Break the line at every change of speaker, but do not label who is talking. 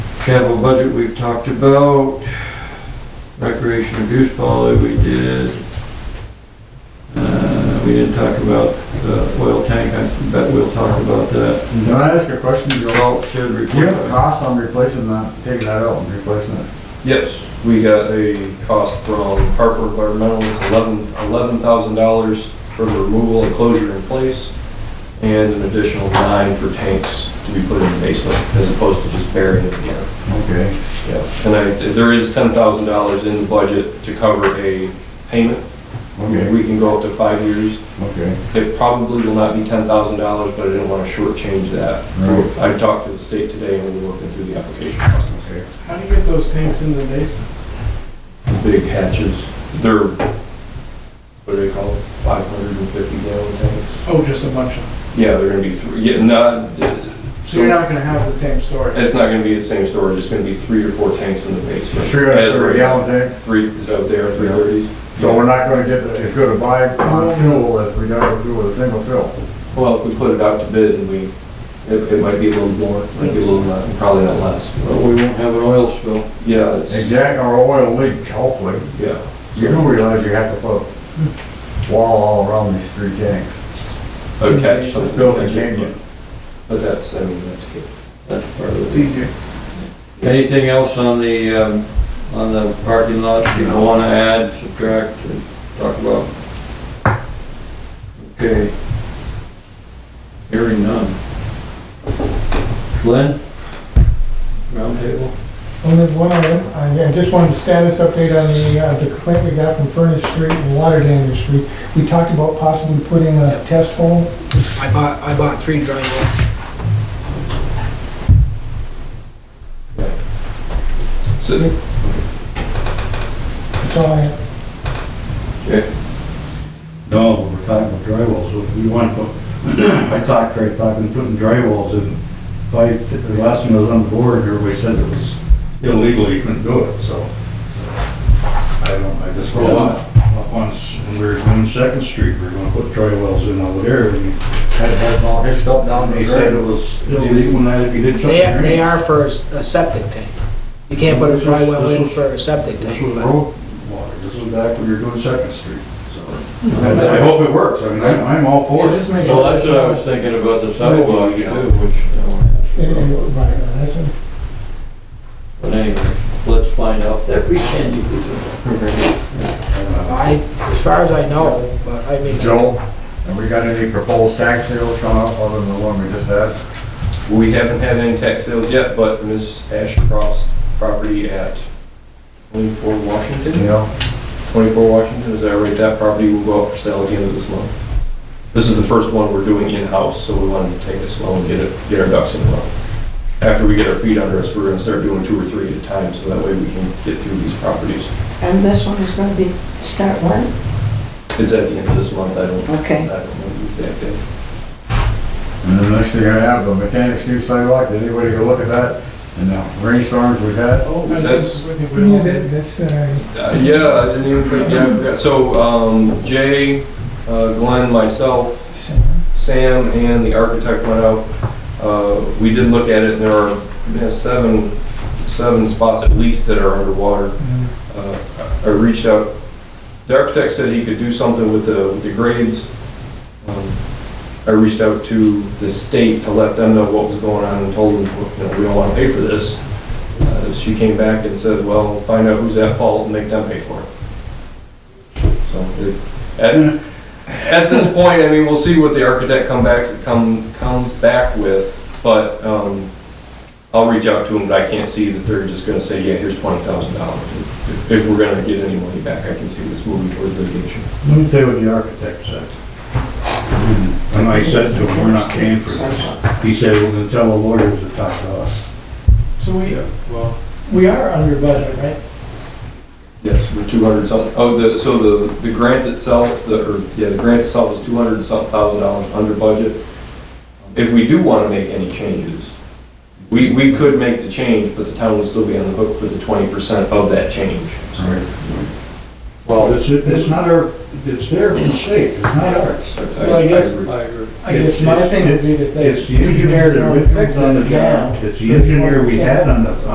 Capital budget, we've talked about. Recreation abuse policy, we did. Uh, we didn't talk about the oil tank, I bet we'll talk about that.
Can I ask a question, Joe?
Salt shed
Do you have a
replacement.
cost on replacing that, taking that out and replacing it?
Yes, we got a cost from Harper Environmental, it's eleven, eleven thousand dollars for the removal and closure in place, and an additional nine for tanks to be put in the basement, as opposed to just burying it here.
Okay.
Yeah. And I, there is ten thousand dollars in the budget to cover a payment,
Okay,
we can go up to five years.
okay.
It probably will not be ten thousand dollars, but I didn't want to shortchange that.
Right.
I talked to the state today, and we we're working through the application process.
How do you get those tanks in the basement?
big hatches. They're, what do they call it, 550 gallon tanks?
Oh, just a bunch of them.
Yeah, they're gonna be three, yeah, not, uh,
So
so
you're not gonna have the same story.
it's not gonna be the same storage, it's gonna be three or four tanks in the basement.
Three
As right
hundred thirty
now.
gallon tank,
Three, is that there, 330s?
so we're not gonna get as good a buy on fuel as we gotta do with a single fill.
Well, if we put it out to bid and we, it, it might be a little more, might be a little less, probably not less.
Well, we won't have an oil spill.
Yeah, it's,
Exact, or oil leak, hopefully.
yeah.
You do realize you have to put wall all around these three tanks.
A catch, something.
Build a
catch it,
canyon.
But that's, I mean, that's good. That's part
It's
of it.
easier.
Anything else on the, um, on the parking lot people wanna add, subtract, and talk about? Okay. Hearing none. Glenn? Roundtable?
Only Oh, one item, I I just wanted a status update on the, uh, the complaint we got from Furnace Street and Water Damage Street. We talked about possibly putting a test hole.
I bought, I bought three dry wells.
So,
That's all I have.
No, we're talking about drywalls, so if we want to put, I talked, Craig, talking, putting drywalls in, if I, the last time I was on the board, everybody said it was illegal, you couldn't do it, so. I don't, I just,
For what?
up on, s- when we were doing Second Street, we were gonna put drywalls in over there, and
Had, had all his stuff down
they
the
said it
grade.
was illegal, and I, if you did something.
They are, they are for a septic tank. You can't put a dry well in for a septic
This was
tank, but
road water, this was back when we were doing Second Street, so.
Hmm.
I I hope it works, I mean, I'm, I'm all for it.
make
So that's what I was thinking about the sidewalk too, which I wanna ask you
And-
about.
and- Right, uh, that's it.
But anyway, let's find out that we can use it.
I, as far as I know, but I mean.
Joe, have we got any proposed tax sales coming up other than the one we just had?
We haven't had any tax sales yet, but Ms. Ashcroft's property at 24 Washington,
Yeah.
24 Washington, is that right? That property will go up for sale at the end of this month. This is the first one we're doing in-house, so we wanted to take it slow and get it, get our ducks in a row. After we get our feet under us, we're gonna start doing two or three at a time, so that way we can get through these properties.
And this one is gonna be, start when?
It's at the end of this month, I don't, I
Okay.
don't know the exact date.
And then the next thing I have, the mechanics new sidewalk, did anybody go look at that? And the rainstorms we've had?
Oh,
that's-
Yeah, that- that's, uh,
Uh, Yeah, I didn't even think, yeah, I forgot. So, um, Jay, uh, Glenn, myself,
uh,
Sam and the architect went out. Uh, We did look at it, and there are yeah, seven, seven spots at least that are underwater. Uh, I I reached out, the architect said he could do something with the, with the grades. Um, I reached out to the state to let them know what was going on and told them, you know, we don't want to pay for this. Uh, She came back and said, well, find out who's at fault and make them pay for it. So, it- and at this point, I mean, we'll see what the architect come back, come, comes back with, but, um, I'll reach out to him, but I can't see that they're just gonna say, yeah, here's twenty thousand dollars. If we're gonna get any money back, I can see this moving toward litigation.
Let me tell you what the architect said. And I said to him, we're not paying for this. He said, we're gonna tell the lawyers to talk to us.
So we, we are under budget, right?
Yes, the two hundred something, oh, the, so the, the grant itself, the, or, yeah, the grant itself is two hundred and something thousand dollars under budget. If we do wanna make any changes, we, we could make the change, but the town would still be on the hook for the twenty percent of that change.
Well, it's, it's not our, it's their mistake, it's not ours.
Well, I guess- I guess my thing would be to say,
It's the
engineers
engineer
are
that
going
we
to fix
fixed on the
it now.
job. It's the engineer we had on the,